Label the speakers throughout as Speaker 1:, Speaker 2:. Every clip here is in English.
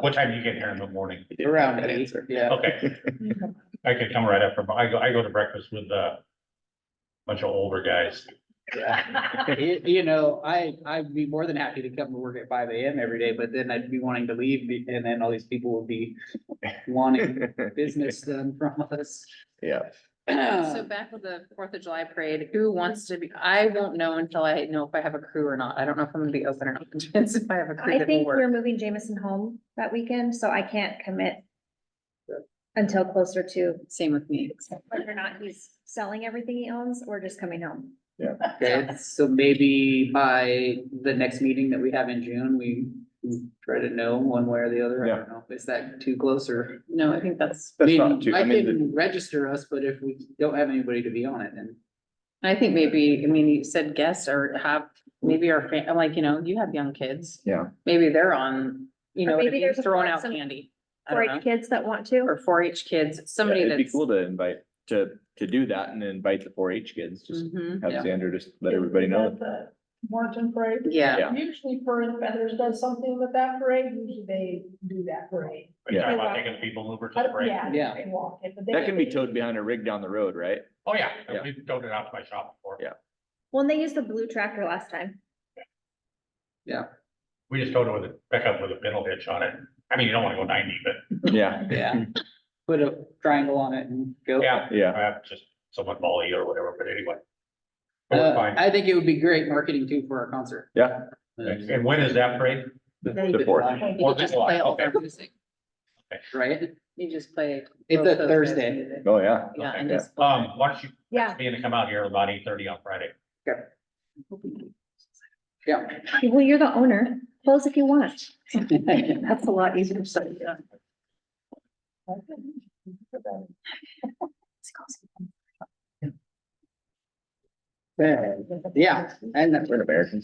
Speaker 1: What time do you get here in the morning?
Speaker 2: Um, Around
Speaker 3: That
Speaker 2: eight,
Speaker 3: answer.
Speaker 2: yeah.
Speaker 1: Okay, I could come right after, but I go, I go to breakfast with uh, a bunch of older guys.
Speaker 2: yeah. You, you know, I, I'd be more than happy to come to work at five AM every day, but then I'd be wanting to leave be- and then all these people would be wanting business done from us.
Speaker 3: Yeah.
Speaker 4: Um,
Speaker 5: So back with the Fourth of July parade, who wants to be, I won't know until I know if I have a crew or not. I don't know if I'm gonna be open or not. Depends if I have a crew
Speaker 4: I
Speaker 5: that will
Speaker 4: think we're
Speaker 5: work.
Speaker 4: moving Jameson home that weekend, so I can't commit until closer to
Speaker 5: Same with me.
Speaker 4: whether or not he's selling everything he owns or just coming home.
Speaker 2: Okay, so maybe by the next meeting that we have in June, we try to know one way or the other. I
Speaker 3: Yeah.
Speaker 2: don't know. Is that too close or?
Speaker 5: No, I think that's,
Speaker 3: That's
Speaker 2: Maybe-
Speaker 3: not too,
Speaker 2: I
Speaker 3: I mean, the-
Speaker 2: can register us, but if we don't have anybody to be on it, then.
Speaker 5: I think maybe, I mean, you said guests or have, maybe our, fam- I'm like, you know, you have young kids.
Speaker 3: Yeah.
Speaker 5: Maybe they're on, you
Speaker 4: Or
Speaker 5: know,
Speaker 4: maybe
Speaker 5: you're
Speaker 4: there's a-
Speaker 5: throwing out
Speaker 4: some-
Speaker 5: candy. I
Speaker 4: For
Speaker 5: don't know.
Speaker 4: eight kids that want to,
Speaker 5: Or four H kids,
Speaker 3: yeah,
Speaker 5: somebody
Speaker 3: it'd be
Speaker 5: that's.
Speaker 3: cool to invite, to, to do that and invite the four H kids, just
Speaker 5: Mhm.
Speaker 3: have
Speaker 2: Yeah.
Speaker 3: Xander just let everybody know.
Speaker 6: The Marching parade.
Speaker 5: Yeah.
Speaker 3: Yeah.
Speaker 6: Usually Fur and Feathers does something with that parade, usually they do that parade.
Speaker 3: Yeah.
Speaker 1: Talking about taking people over to
Speaker 6: I
Speaker 1: the
Speaker 6: don't-
Speaker 1: break.
Speaker 6: Yeah.
Speaker 2: Yeah.
Speaker 6: They walk it, but they.
Speaker 3: That can be towed behind a rig down the road, right?
Speaker 1: Oh, yeah,
Speaker 3: Yeah.
Speaker 1: we've done it out to my shop before.
Speaker 3: Yeah.
Speaker 4: when they used the blue tractor last time.
Speaker 1: We just towed it with a pickup with a pedal hitch on it. I mean, you don't wanna go ninety, but
Speaker 3: Yeah,
Speaker 2: Yeah. Put a triangle on it and go.
Speaker 1: yeah,
Speaker 3: yeah.
Speaker 1: uh, just somewhat molly or whatever, but anyway. But we're
Speaker 2: Uh,
Speaker 1: fine.
Speaker 2: I think it would be great marketing too for our concert.
Speaker 3: Yeah.
Speaker 2: Uh,
Speaker 1: And when is that parade?
Speaker 3: The fourth.
Speaker 5: You
Speaker 1: Fourth of
Speaker 5: just
Speaker 1: July,
Speaker 5: play all
Speaker 1: okay.
Speaker 5: their music.
Speaker 2: Right?
Speaker 5: You just play.
Speaker 2: It's
Speaker 5: both
Speaker 2: a
Speaker 5: those
Speaker 2: Thursday.
Speaker 5: guys' music.
Speaker 3: Oh, yeah.
Speaker 5: Yeah, and
Speaker 3: Okay.
Speaker 5: just. play.
Speaker 1: Um, why don't you,
Speaker 4: Yeah,
Speaker 1: be in to come out here about eight thirty on Friday?
Speaker 2: Yeah.
Speaker 4: well, you're the owner. Close if you want.
Speaker 5: That's a lot easier to say, yeah.
Speaker 2: Yeah, and
Speaker 3: We're an American.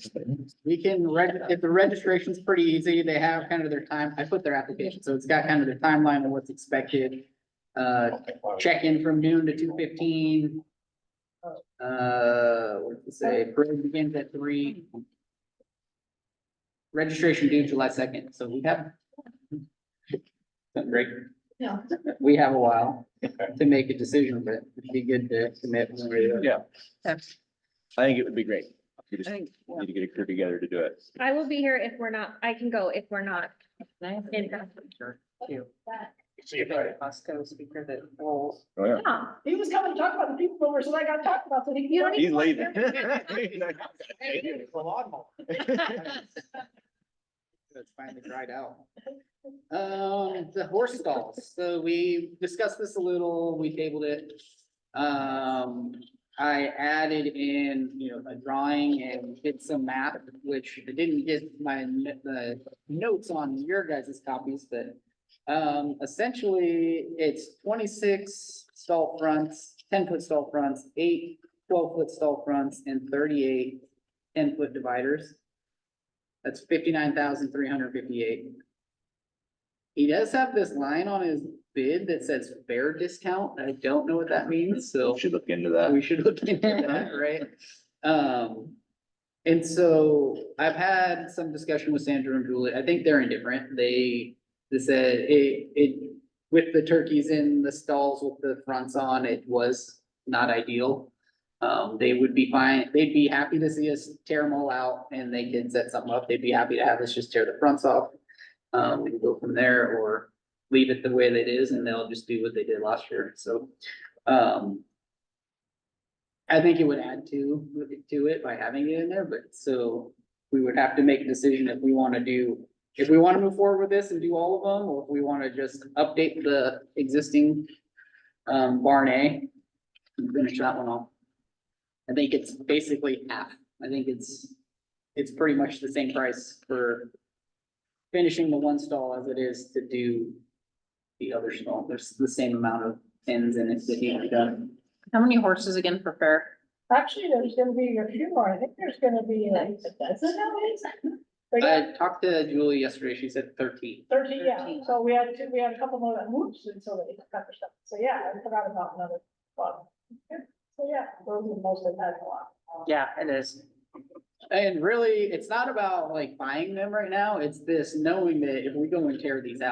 Speaker 2: we can, reg- if the registration's pretty easy, they have kind of their time, I put their application, so it's got kind of the timeline of what's expected. Uh, check in from noon to two fifteen. Uh, what to say, parade begins at three. Registration due July second, so we have. Something great,
Speaker 6: Yeah.
Speaker 2: we have a while to make a decision, but it'd be good to commit. one way or the other.
Speaker 3: Yeah,
Speaker 5: Okay.
Speaker 3: I think it would be great. We
Speaker 5: I
Speaker 3: just
Speaker 5: think, yeah.
Speaker 3: need to get a crew together to do it.
Speaker 4: I will be here if we're not, I can go if we're not.
Speaker 5: Nice.
Speaker 4: In-
Speaker 5: Sure. Cute.
Speaker 1: See you Friday.
Speaker 5: Costco speaker that rolls.
Speaker 3: Oh, yeah.
Speaker 4: Yeah.
Speaker 6: He was coming to talk about the people mover, so I gotta talk about that.
Speaker 4: You don't
Speaker 3: He's lazy.
Speaker 2: It's finally dried out. Um, the horse stalls, so we discussed this a little, we tabled it. Um, I added in, you know, a drawing and did some math, which I didn't get my, n- the notes on your guys' copies, but. Um, essentially, it's twenty-six stall fronts, ten-foot stall fronts, eight 12 foot stall fronts and 38 10 foot dividers. That's fifty-nine thousand three hundred fifty-eight. He does have this line on his bid that says fair discount. I don't know what that means, so
Speaker 3: Should look into that.
Speaker 2: we should look into that, right? Um, and so I've had some discussion with Sandra and Julie. I think they're indifferent. They, they said it, it, with the turkeys in the stalls with the fronts on, it was not ideal. Um, they would be fine, they'd be happy to see us tear them all out and they could set something up. They'd be happy to have us just tear the fronts off. Um, we can go from there or leave it the way that it is and they'll just do what they did last year. So, um, I think it would add to, to it by having it in there, but so we would have to make a decision if we wanna do. If we wanna move forward with this and do all of them, or if we wanna just update the existing um barn A. and Finish that one off. I think it's basically half. I think it's, it's pretty much the same price for. Finishing the one stall as it is to do the other stall. There's the same amount of pins in it that need to be done.
Speaker 5: How many horses again for fair?
Speaker 6: Actually, there's gonna be a few more, I think there's gonna be like a dozen nowadays. They got
Speaker 2: I talked to Julie yesterday, she said thirteen.
Speaker 6: Thirteen, yeah,
Speaker 5: 13.
Speaker 6: so we had, two- we had a couple more that moved, and so they cut their stuff, so yeah, I forgot about another one. So yeah, those are the most I've had in a lot.
Speaker 5: Yeah, it is.
Speaker 2: And really, it's not about like buying them right now, it's this knowing that if we go and tear these out.